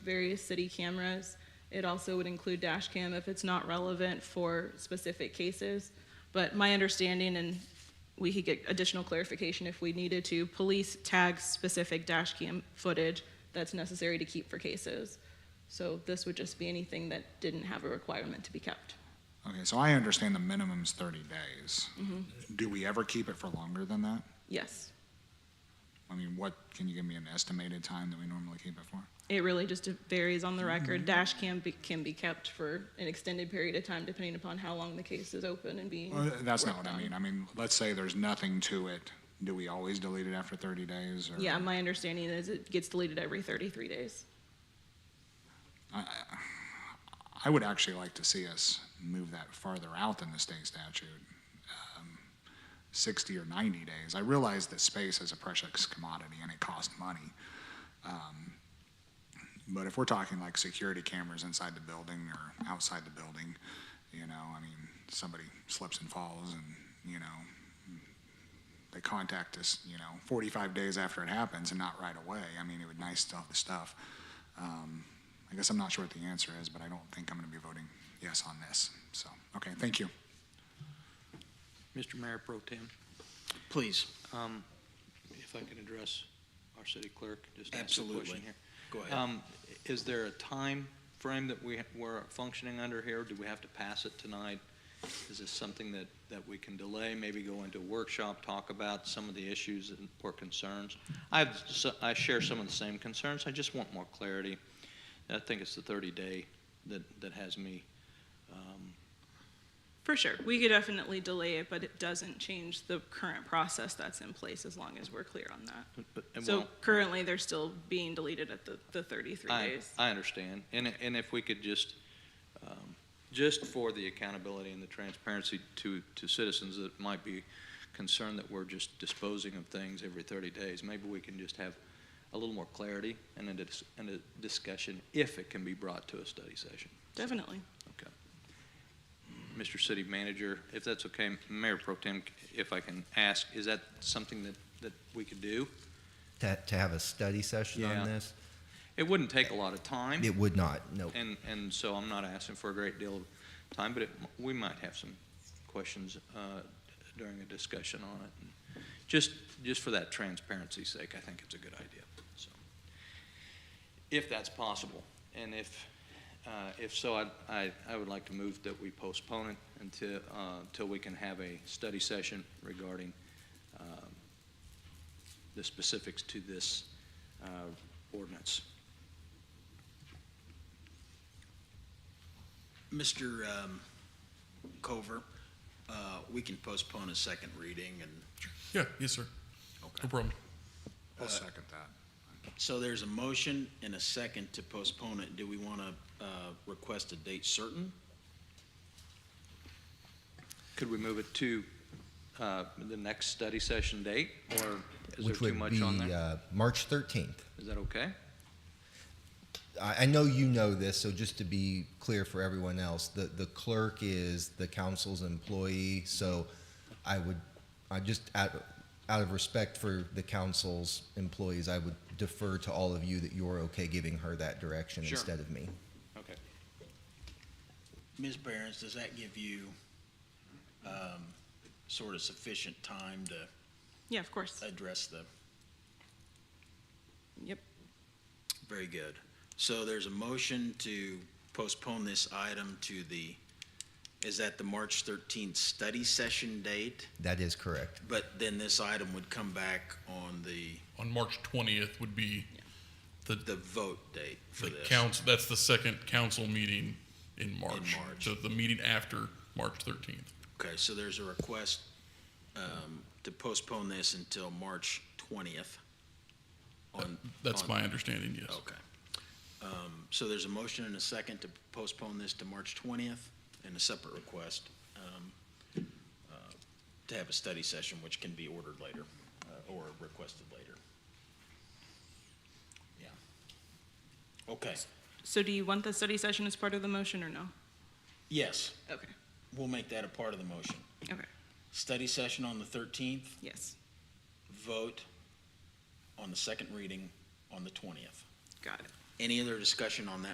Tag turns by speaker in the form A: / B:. A: various city cameras. It also would include dash cam if it's not relevant for specific cases. But my understanding, and we could get additional clarification if we needed to, police tag specific dash cam footage that's necessary to keep for cases. So this would just be anything that didn't have a requirement to be kept.
B: Okay, so I understand the minimum's thirty days. Do we ever keep it for longer than that?
A: Yes,
B: I mean, what, can you give me an estimated time that we normally keep it for?
A: it really just varies on the
B: Mm-hmm.
A: record. Dash cam be, can be kept for an extended period of time depending upon how long the case is open and being.
B: Well, that's not
A: worked
B: what I
A: on.
B: mean. I mean, let's say there's nothing to it. Do we always delete it after thirty days or?
A: Yeah, my understanding is it gets deleted every 33 days.
B: I would actually like to see us move that farther out than the state statute, um, 60 or 90 days. I realize that space is a precious commodity and it costs money. Um, But if we're talking like security cameras inside the building or outside the building, you know, I mean, somebody slips and falls and, you know, they contact us, you know, 45 days after it happens and not right away. I mean, it would nice to have the stuff. Um, I guess I'm not sure what the answer is, but I don't think I'm going to be voting yes on this. So, okay, thank you.
C: Mr. Mayor Pro Tem,
D: Please,
C: um, if I can address our city clerk, just ask a
D: Absolutely.
C: question here.
D: go ahead.
C: Um, Is there a time frame that we, we're functioning under here? Do we have to pass it tonight? Is this something that, that we can delay, maybe go into a workshop, talk about some of the issues and or concerns? I have, s- I share some of the same concerns, I just want more clarity. And I think it's the 30-day that, that has me, um,
A: For sure. We could definitely delay it, but it doesn't change the current process that's in place as long as we're clear on that.
C: but- but it
A: So
C: won't-
A: currently, they're still being deleted at the, the 33
C: I,
A: days.
C: I understand, and, and if we could just, um, just for the accountability and the transparency to, to citizens that might be concerned that we're just disposing of things every thirty days, maybe we can just have a little more clarity and a, dis- and a discussion if it can be brought to a study session.
A: Definitely.
C: Mr. City Manager, if that's okay, Mayor Pro Tem, if I can ask, is that something that, that we could do?
E: to, to have a study session
C: Yeah.
E: on this?
C: It wouldn't take a lot of time.
E: It would not, no.
C: And, and so I'm not asking for a great deal of time, but it, we might have some questions, uh, during a discussion on it. Just, just for that transparency's sake, I think it's a good idea, so. If that's possible, and if, uh, if so, I, I, I would like to move that we postpone it until, uh, until we can have a study session regarding, um, the specifics to this, uh, ordinance.
D: Mr. um, Cover, uh, we can postpone a second reading and,
F: Yeah, yes, sir. No
D: okay.
F: problem.
B: I'll
D: Uh,
B: second that.
D: So there's a motion and a second to postpone it. Do we want to uh, request a date certain?
C: Could we move it to uh, the next study session date, or is there
E: Which
C: too
E: would
C: much
E: be
C: on there?
E: uh, March 13th.
C: Is that okay?
E: I, I know you know this, so just to be clear for everyone else, the, the clerk is the council's employee, so I would, I just, out, out of respect for the council's employees, I would defer to all of you that you're okay giving her that direction
C: Sure.
E: instead of me.
C: Okay.
D: Ms. Behrens, does that give you um, sort of sufficient time to
A: Yeah, of course.
D: address the?
A: Yep.
D: Very good. So there's a motion to postpone this item to the, is that the March 13th study session date?
E: That is correct.
D: But then this item would come back on the,
F: On March twentieth would be
D: the vote date for
F: the
D: this.
F: council, that's the second council meeting in March.
D: March.
F: So the meeting after March thirteenth.
D: Okay, so there's a request um, to postpone this until March 20th. on-
F: That's
D: on-
F: my understanding, yes.
D: Okay. Um, So there's a motion and a second to postpone this to March 20th and a separate request um, uh, to have a study session, which can be ordered later uh, or requested later. Yeah. Okay,
A: So do you want the study session as part of the motion or no?
D: yes,
A: Okay.
D: we'll make that a part of the motion.
A: Okay.
D: Study session on the 13th,
A: Yes.
D: vote on the second reading on the 20th.
A: Got it.
D: Any other discussion on that